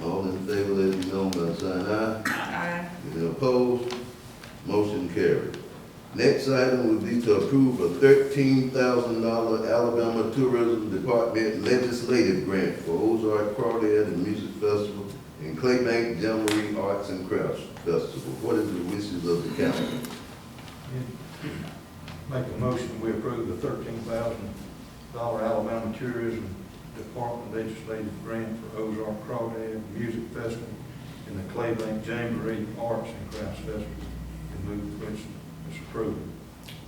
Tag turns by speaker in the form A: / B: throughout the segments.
A: in favor, let it be known by the sign aye.
B: Aye.
A: Any opposed? Motion carried. Next item would be to approve a thirteen thousand dollar Alabama Tourism Department legislative grant for Ozark Crawdad and Music Festival and Claybank Jamboree Arts and Crafts Festival. What is the wishes of the council?
C: Make a motion, we approve the thirteen thousand dollar Alabama Tourism Department legislative grant for Ozark Crawdad Music Festival and the Claybank Jamboree Arts and Crafts Festival. And move for its its approval.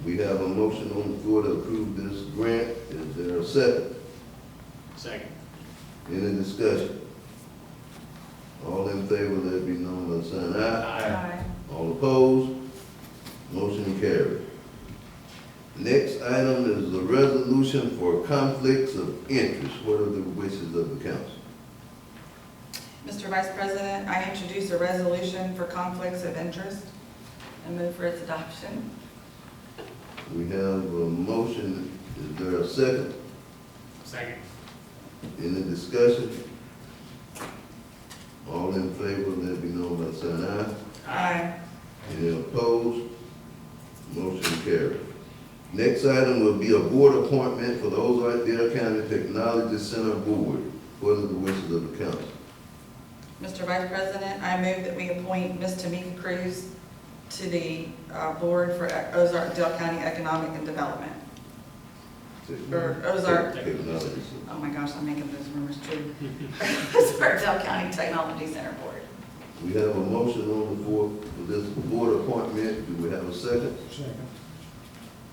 A: We have a motion on the floor to approve this grant. Is there a second?
D: Second.
A: Any discussion? All in favor, let it be known by the sign aye.
B: Aye.
A: All opposed? Motion carried. Next item is a resolution for conflicts of interest. What are the wishes of the council?
B: Mr. Vice President, I introduce a resolution for conflicts of interest and move for its adoption.
A: We have a motion, is there a second?
D: Second.
A: Any discussion? All in favor, let it be known by saying aye.
B: Aye.
A: Any opposed? Motion carried. Next item will be a board appointment for the Ozark Dale County Technology Center Board. What are the wishes of the council?
B: Mr. Vice President, I move that we appoint Ms. Tamika Cruz to the uh, Board for Ozark Dale County Economic and Development. Or Ozark,
A: Technology.
B: oh my gosh, I'm making those rumors true. Ozark Dale County Technology Center Board.
A: We have a motion on the floor for this board appointment. Do we have a second?
C: Second.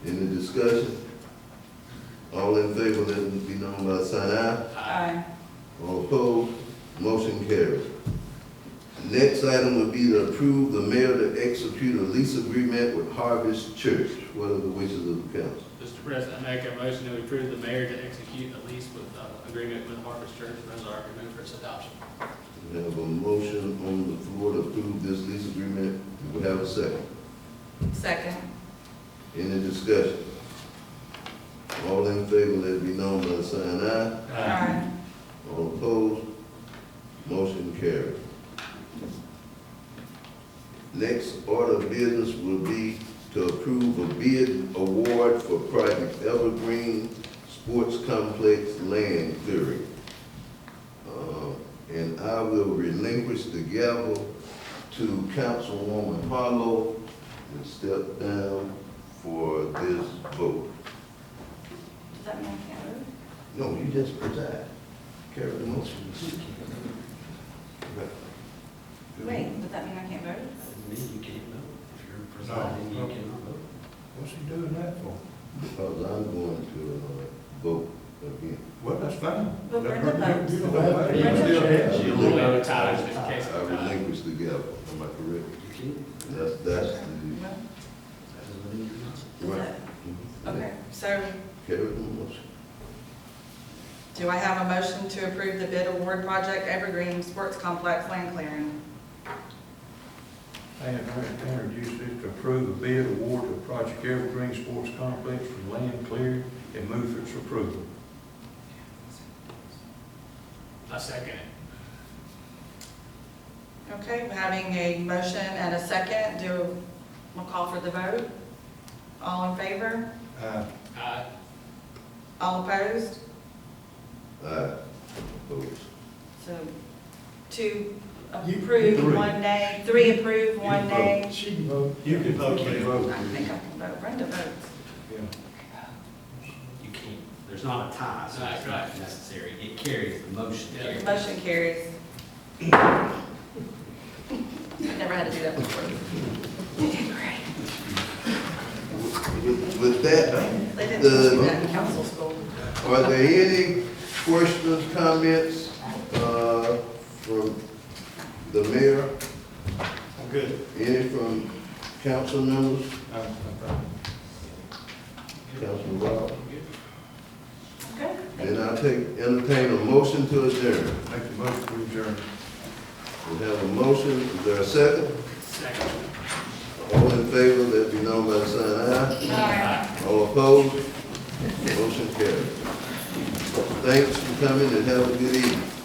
A: Any discussion? All in favor, let it be known by a sign aye.
B: Aye.
A: All opposed, motion carries. Next item would be to approve the mayor to execute a lease agreement with Harvest Church. What are the wishes of the council?
D: Mr. President, I make a motion that we approve the mayor to execute a lease with, uh, agreement with Harvest Church of Ozark and move for its adoption.
A: We have a motion on the floor to approve this lease agreement. Do we have a second?
B: Second.
A: Any discussion? All in favor, let it be known by the sign aye.
B: Aye.
A: All opposed? Motion carried. Next order of business will be to approve a bid award for Project Evergreen Sports Complex Land Clearing. Uh, And I will relinquish the gavel to Councilwoman Harlow and step down for this vote.
B: Does that mean I can't move?
A: No, you just preside. Carry the motion.
B: Wait, does that mean I can't vote?
E: Me, you can't vote. If you're presiding, you cannot vote.
C: What's he doing that for?
A: Because I'm going to uh, vote again.
C: Well, that's fine.
B: But Brenda votes.
C: You don't have to.
E: You
C: You still have to.
E: You only vote tied.
D: Just in
A: I
D: case it's not.
A: relinquish the gavel, am I correct?
E: You can't.
A: That's, that's the,
B: No?
E: That doesn't mean you're not.
B: Is
A: right.
B: that- Okay, so
A: Carry the motion.
B: do I have a motion to approve the bid award project Evergreen Sports Complex land clearing?
C: I have introduced it to approve a bid award to Project Evergreen Sports Complex for land cleared and move for its approval.
D: I second it.
B: Okay, we're having a motion and a second, do, we'll call for the vote. All in favor?
C: Uh,
D: Aye.
B: All opposed?
A: Aye. Opposed.
B: So two
C: You-
B: approve,
C: three.
B: one nay, three approve, one
C: You
B: nay.
C: She can vote. You can vote. can vote.
B: I think I can vote, Brenda votes.
C: Yeah.
E: You can't, there's not a tie, so it's not
D: Right.
E: necessary. It carries, the motion
D: Yeah.
E: carries.
B: Motion carries. Never had to do that before. You did great.
A: With with that,
B: They didn't teach me that in council school.
A: are there any questions, comments, uh, from the mayor?
C: I'm good.
A: Any from council members? Councilman Rob?
B: Okay.
A: Then I'll take, entertain a motion to adjourn.
C: Make the motion to adjourn.
A: We have a motion, is there a second?
D: Second.
A: All in favor, let it be known by the sign aye. All opposed? Motion carried. Thanks for coming and have a good evening.